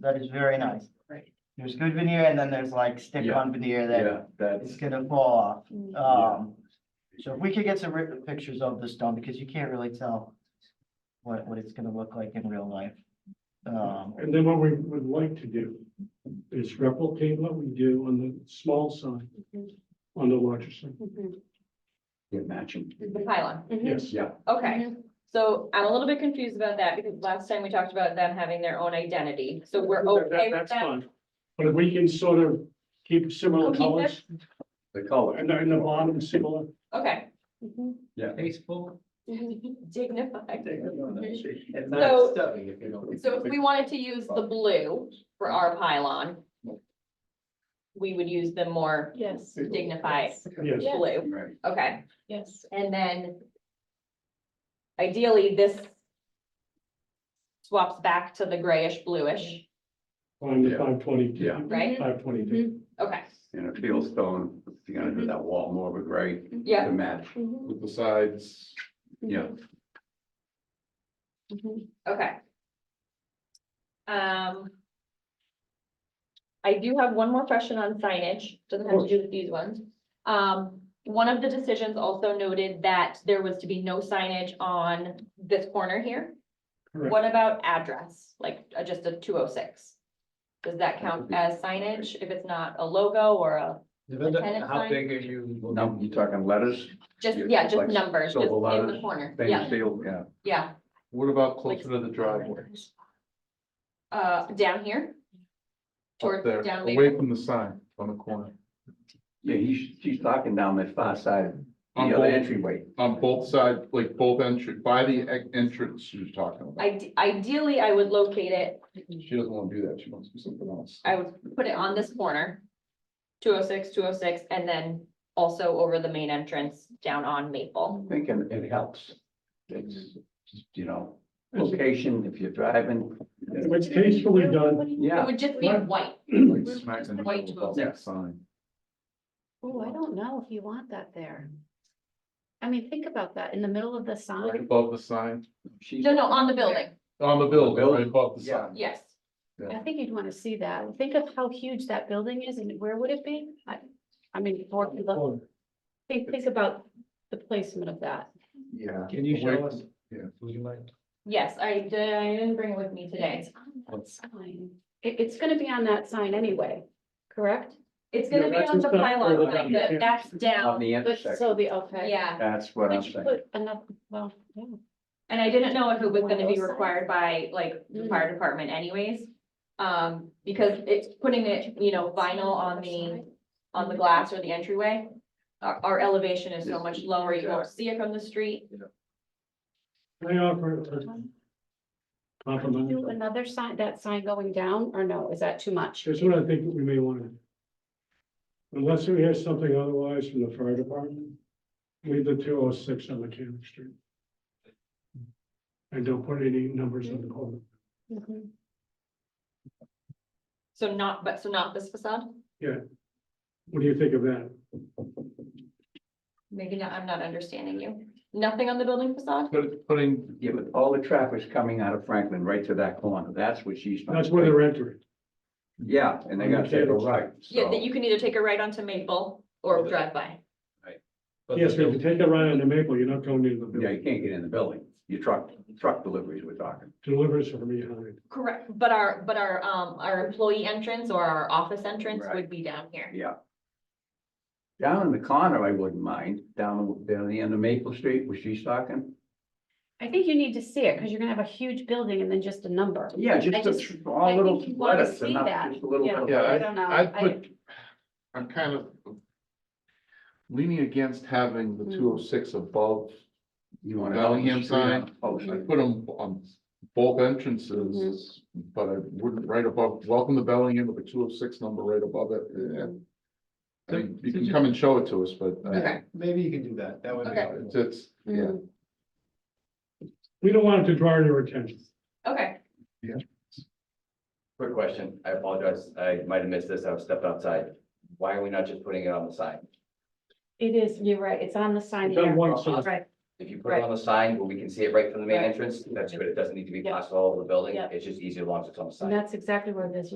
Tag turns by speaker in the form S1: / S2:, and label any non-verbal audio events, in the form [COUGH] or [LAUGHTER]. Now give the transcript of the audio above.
S1: that is very nice.
S2: Right.
S1: There's good veneer and then there's like stick on veneer that
S3: Yeah, that's,
S1: is gonna fall
S2: Mm.
S1: off. Um, so if we could get some ri- pictures of the stone, because you can't really tell what, what it's gonna look like in real life. Um,
S4: And then what we would like to do is replicate what we do on the small side,
S2: Mhm.
S4: on the larger side.
S2: Mhm.
S3: yeah, matching,
S5: The pylon,
S4: Yes,
S3: yeah.
S5: okay.
S2: Mm-hmm.
S5: So I'm a little bit confused about that because last time we talked about them having their own identity, so we're
S4: That- that-
S5: okay with
S4: that's
S5: that?
S4: fine. But if we can sort of keep similar
S5: Keep it.
S4: colors
S3: The color,
S4: and the- and the bottom is similar.
S5: Okay.
S2: Mhm.
S3: yeah.
S6: Tasteful.
S5: Dignified.
S6: And
S5: So-
S6: not stubby if you don't.
S5: So if we wanted to use the blue for our pylon, we would use the more
S2: Yes.
S5: dignified
S4: Yes.
S2: Yeah.
S5: blue,
S3: Right.
S5: okay?
S2: Yes.
S5: And then ideally, this swaps back to the grayish bluish,
S4: On the
S3: Yeah.
S4: five twenty-two.
S3: Yeah.
S5: right?
S4: Five
S2: Mm-hmm.
S4: twenty-two.
S5: Okay,
S3: And a field stone, you're gonna do that wall more of a gray
S5: Mm-hmm. yeah,
S3: to match
S2: Mhm.
S3: with the sides, yeah.
S2: Mhm.
S5: okay. Um. I do have one more question on signage, doesn't have to do with these ones. Um, one of the decisions also noted that there was to be no signage on this corner here.
S4: Correct.
S5: What about address, like uh, just a two oh six? Does that count
S3: be-
S5: as signage if it's not a logo or a,
S6: Depends on
S5: Lieutenant
S6: How
S5: sign?
S6: big are you?
S3: Now,
S6: looking?
S3: you're talking letters,
S5: just,
S3: Yeah,
S5: yeah, just
S3: like
S5: numbers, just in
S3: silver
S5: the
S3: letters,
S5: corner,
S3: things,
S5: yeah,
S3: field, yeah.
S5: yeah.
S7: What about
S5: Like-
S7: closer to the driveway?
S5: Uh, down here?
S7: Up
S5: Towards
S7: there,
S5: down
S7: away
S5: Maple?
S7: from the sign on the corner,
S3: Yeah, he's, she's talking down that far side, the
S7: On
S3: other
S7: both-
S3: entryway.
S7: on both sides, like both entry, by the e- entrance she was talking about.
S5: Ide- Ideally, I would locate it,
S7: She doesn't want to do that. She wants to do something else.
S5: [CLEARS THROAT] I would put it on this corner. 206, 206, and then also over the main entrance down on Maple.
S3: I'm thinking it helps. It's, just, you know, location, if you're driving,
S5: Mm-hmm.
S4: It's tastefully done.
S5: It
S3: yeah.
S5: would just be
S4: Right.
S5: white,
S7: Like smack in the
S5: White
S7: middle of
S5: to
S3: a-
S7: that sign.
S2: Oh, I don't know if you want that there. I mean, think about that, in the middle of the
S7: Right
S2: sign,
S7: above the sign,
S3: She's,
S5: no, no, on the building,
S7: on the building,
S3: Building.
S7: right above the
S3: yeah,
S7: sign.
S5: yes,
S2: I think you'd wanna see that, think of how huge that building is and where would it be? I, I mean, for, look, think, think about the placement of that.
S7: Yeah.
S6: Can you
S7: Away-
S6: show us?
S7: Yeah.
S6: Would you mind?
S5: yes, I did, I didn't bring it with me today.
S2: It's on that sign, it, it's gonna be on that sign anyway, correct?
S5: It's
S4: No,
S5: gonna be
S4: that's
S5: on the
S4: just not
S5: pylon,
S4: further
S5: like,
S4: down.
S5: the- that's
S3: on
S5: down,
S3: the
S2: But
S3: intersection,
S2: so the, okay.
S5: yeah.
S3: that's what I'm
S2: Would you
S3: saying.
S2: put another, well, yeah.
S5: And I didn't know if it was
S2: One of
S5: gonna be
S2: those Mm-hmm. signs.
S5: required by like the fire department anyways. Um, because it's putting it, you know, vinyl on the, on the glass or the entryway. Our, our elevation is so much lower, you won't see it from the street.
S4: Can I offer a compliment?
S2: Do another sign, that sign going down, or no, is that too much?
S4: Here's what I think we may want to. do. Unless we hear something otherwise from the fire department, leave the two oh six on Mechanic Street. And don't put any numbers on the corner.
S5: Mm-hmm.
S2: Mhm.
S5: So not, but so not this facade,
S4: What do you think of that?
S5: maybe not, I'm not understanding you. Nothing on the building facade?
S7: Put- Putting,
S3: Yeah, but all the traffic's coming out of Franklin right to that corner. That's what she's. trying
S4: That's
S3: to
S4: where
S3: think.
S4: they're entering.
S3: Yeah, and they gotta take a right,
S5: Yeah, that
S3: so.
S5: you can either take a right onto Maple or drive by.
S6: But
S4: Yes,
S6: the
S4: if you
S6: building-
S4: take a right into Maple, you're not going into the
S3: Yeah,
S4: building.
S3: you can't get in the building. Your truck, truck deliveries we're talking.
S4: Deliveries are from behind.
S5: Correct, but our, but our, um, our employee entrance or our office entrance
S3: Right.
S5: would be down here.
S3: Yeah. Down in the corner, I wouldn't mind. Down, down the end of Maple Street, where she's talking.
S2: I think you need to see it, because you're gonna have a huge building and then just a number.
S3: Yeah,
S2: I
S3: just
S2: just-
S3: the tr-
S2: I
S3: all
S2: think
S3: little
S2: you wanna
S3: letters,
S2: see
S3: enough,
S2: that.
S3: just a little.
S2: Yeah.
S3: bit of-
S7: yeah,
S2: I
S7: I
S2: don't know.
S7: I'd
S2: I-
S7: put, I'm kind of leaning against having the
S2: Hmm.
S7: two oh six above.
S3: You want to.
S7: Bellingham sign.
S3: Oh,
S7: Put them on both entrances, but I wouldn't right above, welcome to Bellingham with a two oh six number right above it. Yeah. I mean, you can come and show it to us, but uh,
S5: Okay.
S6: Maybe you can do that. That would be.
S5: Okay.
S7: it's, it's, yeah.
S2: Mhm.
S4: We don't want it to draw your attention.
S5: Okay.
S8: Quick question, I apologize, I might have missed this, I stepped outside. Why are we not just putting it on the sign?
S2: It is, you're right, it's on the sign
S4: It's on
S2: here.
S4: one side.
S2: Right,
S3: If you put it on the sign where we can see it right from the main
S9: Right.
S3: entrance, that's good. It doesn't need to be
S2: Yeah.
S3: plastered all over the building.
S9: Yeah.
S3: It's just easier as long as it's on the sign.
S2: And that's exactly where this